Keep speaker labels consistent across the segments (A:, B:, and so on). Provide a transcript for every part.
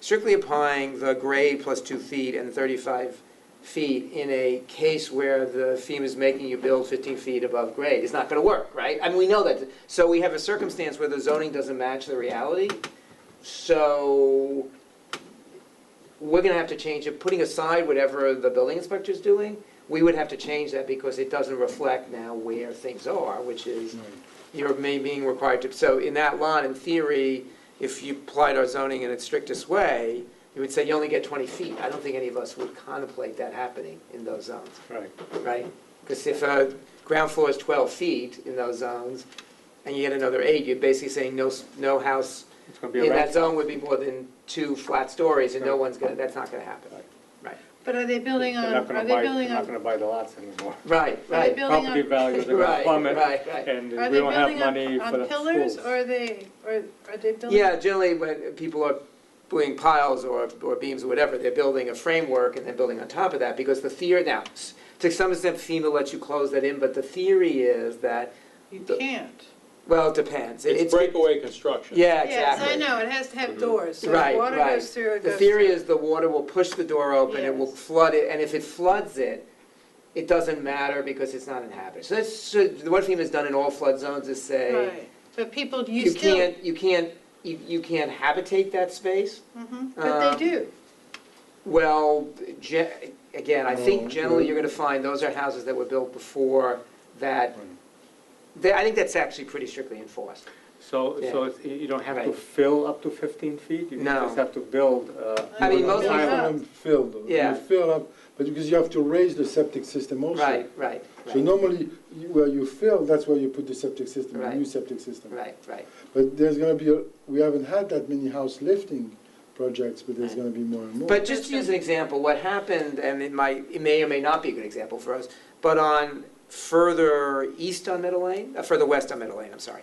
A: strictly applying the grade plus two feet and 35 feet in a case where the FEMA is making you build 15 feet above grade is not going to work, right? I mean, we know that. So we have a circumstance where the zoning doesn't match the reality. So we're going to have to change it, putting aside whatever the building inspector is doing, we would have to change that because it doesn't reflect now where things are, which is you're may being required to, so in that line, in theory, if you applied our zoning in its strictest way, you would say you only get 20 feet. I don't think any of us would contemplate that happening in those zones,
B: Right.
A: right? Because if a ground floor is 12 feet in those zones, and you get another eight, you're basically saying no, s- no house
B: It's going to be
A: in
B: a
A: that
B: wrap.
A: zone would be more than two flat stories, and no one's gonna, that's not gonna happen. Right,
C: But are they building
B: They're
C: on,
B: not
C: are
B: gonna
C: they
B: buy-
C: building
B: They're not
C: on,
B: going to buy the lots anymore.
A: right,
C: are they
A: right.
C: building
B: Property
C: on,
B: values are going to
A: Right,
B: plummet,
A: right, right.
B: and
C: are
B: we
C: they
B: don't have
C: building
B: money
C: on,
B: for the
C: on pillars,
B: schools.
C: or are they, or are they building?
A: Yeah, generally, when people are doing piles or, or beams or whatever, they're building a framework and they're building on top of that, because the theory, now, s- to some extent FEMA lets you close that in, but the theory is that,
C: You
A: the-
C: can't.
A: well, it depends. It-
D: It's breakaway construction.
A: Yeah,
C: Yes, I
A: exactly.
C: know, it has to
B: Mm-hmm.
C: have doors, so
A: Right,
C: if water
A: right.
C: goes through, it
A: The
C: goes
A: theory
C: through.
A: is the water will push the door open, it will
C: Yes.
A: flood it, and if it floods it, it doesn't matter because it's not inhabited. So that's, so what FEMA's done in all flood zones is say,
C: Right, but people, you
A: you
C: still,
A: can't, you can't, you you can't habitate that space.
C: Mhm, but
A: um,
C: they do.
A: Well, ge- again, I
B: No,
A: think generally
B: no.
A: you're gonna find those are houses that were built before that,
B: Right.
A: they- I think that's actually pretty strictly enforced.
B: So, so
A: Yeah.
B: it's- you don't have to
A: Right.
B: fill up to 15 feet? You
A: No.
B: just have to build. uh,
A: I mean,
B: on
A: most
B: the
C: people-
B: island.
C: Yeah.
E: Island filled,
A: Yeah.
E: you fill up, but because you have to raise the septic system also.
A: Right, right,
E: So
A: right,
E: normally, you- where you fill, that's where you put the septic system, the
A: Right.
E: new septic system.
A: right, right.
E: But there's gonna be, a- we haven't had that many house lifting projects, but there's
A: Right.
E: gonna be more and more.
A: But just to use an example, what happened, and it might, it may or may not be a good example for us, but on further east on Middle Lane, uh, further west on Middle Lane, I'm sorry.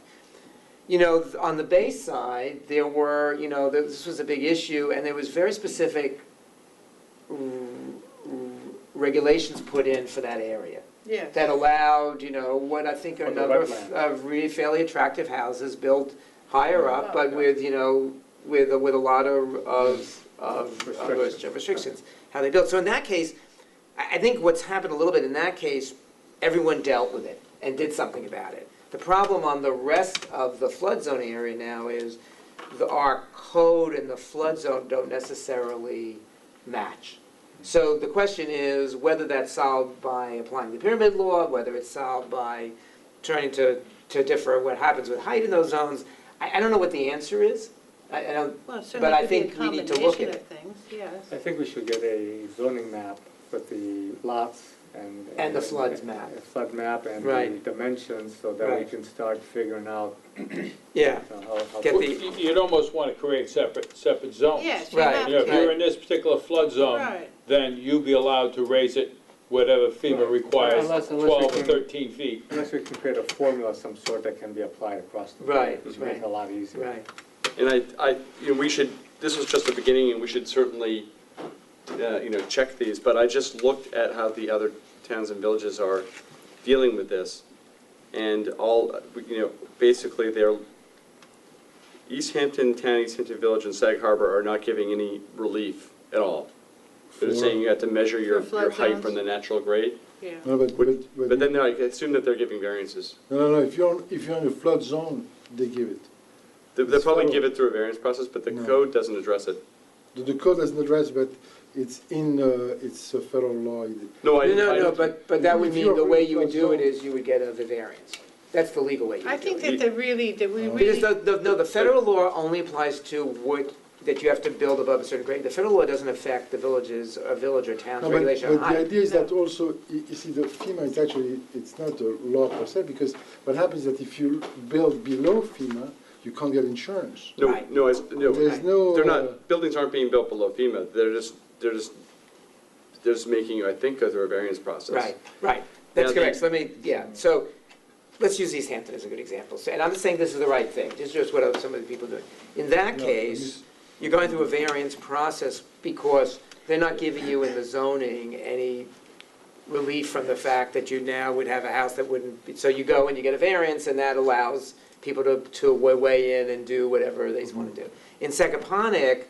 A: You know, th- on the bay side, there were, you know, th- this was a big issue, and there was very specific r- r- regulations put in for that area
C: Yes.
A: that allowed, you know, what I think are a
B: On the
A: number of-
B: wetland.
A: of really fairly attractive houses built higher up,
C: Oh,
A: but
B: yeah.
A: with, you know, with, with a lot of, of, of- of
B: Restrictions.
A: restrictions, how they built. So in that case, I, I think what's happened a little bit in that case, everyone dealt with it and did something about it. The problem on the rest of the flood zone area now is the, our code and the flood zone don't necessarily match. So the question is whether that's solved by applying the pyramid law, whether it's solved by trying to, to differ what happens with height in those zones. I, I don't know what the answer is. I, I don't,
C: Well, it
A: but I
C: certainly could
A: think
C: be a
A: we need to look
C: combination
A: at
C: of things, yes.
B: I think we should get a zoning map with the lots and.
A: And the floods map.
B: a Flood map and
A: Right.
B: the dimensions, so that we
A: Right.
B: can start figuring out
A: yeah,
B: you know, how. how-
A: Get
D: Well,
A: the-
D: you- You'd almost want to create separate, separate zones.
C: Yes, you
A: Right,
C: have
D: You know, if
C: to,
D: you're in this particular flood zone,
C: right,
D: then you'd be allowed to raise it whatever FEMA
B: Right.
D: requires,
B: Unless- unless we
D: 12 or
B: can-
D: 13 feet.
B: Unless we can create a formula of some sort that can be applied across. the board,
A: Right,
B: Which makes it a lot easier.
A: right.
F: And I, I, you know, we should, this was just the beginning, and we should certainly, uh, you know, check these, but I just looked at how the other towns and villages are dealing with this, and all, uh, you know, basically, they're, East Hampton Town, East Hampton Village, and Sag Harbor are not giving any relief at all. They're
E: For-
F: saying you have to measure your,
C: For flood
F: your height
C: zones.
F: from the natural grade,
C: yeah.
E: No, but,
F: Would-
E: but-
F: but then I assume that they're giving variances.
E: No, no, no, if you're, on- if you're in a flood zone, they give it.
F: They- They'll probably
E: So-
F: give it through a variance process, but the
E: No.
F: code doesn't address it.
E: The- The code doesn't address, but it's in, uh, it's a federal law. It-
F: No, I, I.
A: No, no, no, but, but that would
E: If
A: mean
E: you're
A: the way
E: really
A: you would do it
E: close
A: is you would get a the variance. That's the legal way you
C: I
A: would do
C: think
A: it.
C: that they really, that we
E: Uh,
A: Because
C: really,
A: the, the, no, the federal law only applies to what, that you have to build above a certain grade. The federal law doesn't affect the villages, a village or town's
E: No, but,
A: regulation on
E: but the
A: height.
E: idea is that also, y- you see, the FEMA is actually, it's not a law per se, because what happens is that if you build below FEMA, you can't get insurance.
F: No,
A: Right.
F: no, it's, no.
E: There's no.
F: They're
E: uh,
F: not, buildings aren't being built below FEMA, they're just, they're just, they're just making, you, I think, go through a variance process.
A: Right, right, that's
F: Now, the-
A: correct, so let me, yeah, so, let's use East Hampton as a good example, so, and I'm not saying this is the right thing, this is just what some of the people are doing. In that
E: No,
A: case, you're going through a variance process because they're not giving you in the zoning any relief from the fact that you now would have a house that wouldn't, be so you go and you get a variance, and that allows people to, to wa- weigh in and do whatever they want to do. In Secoponic,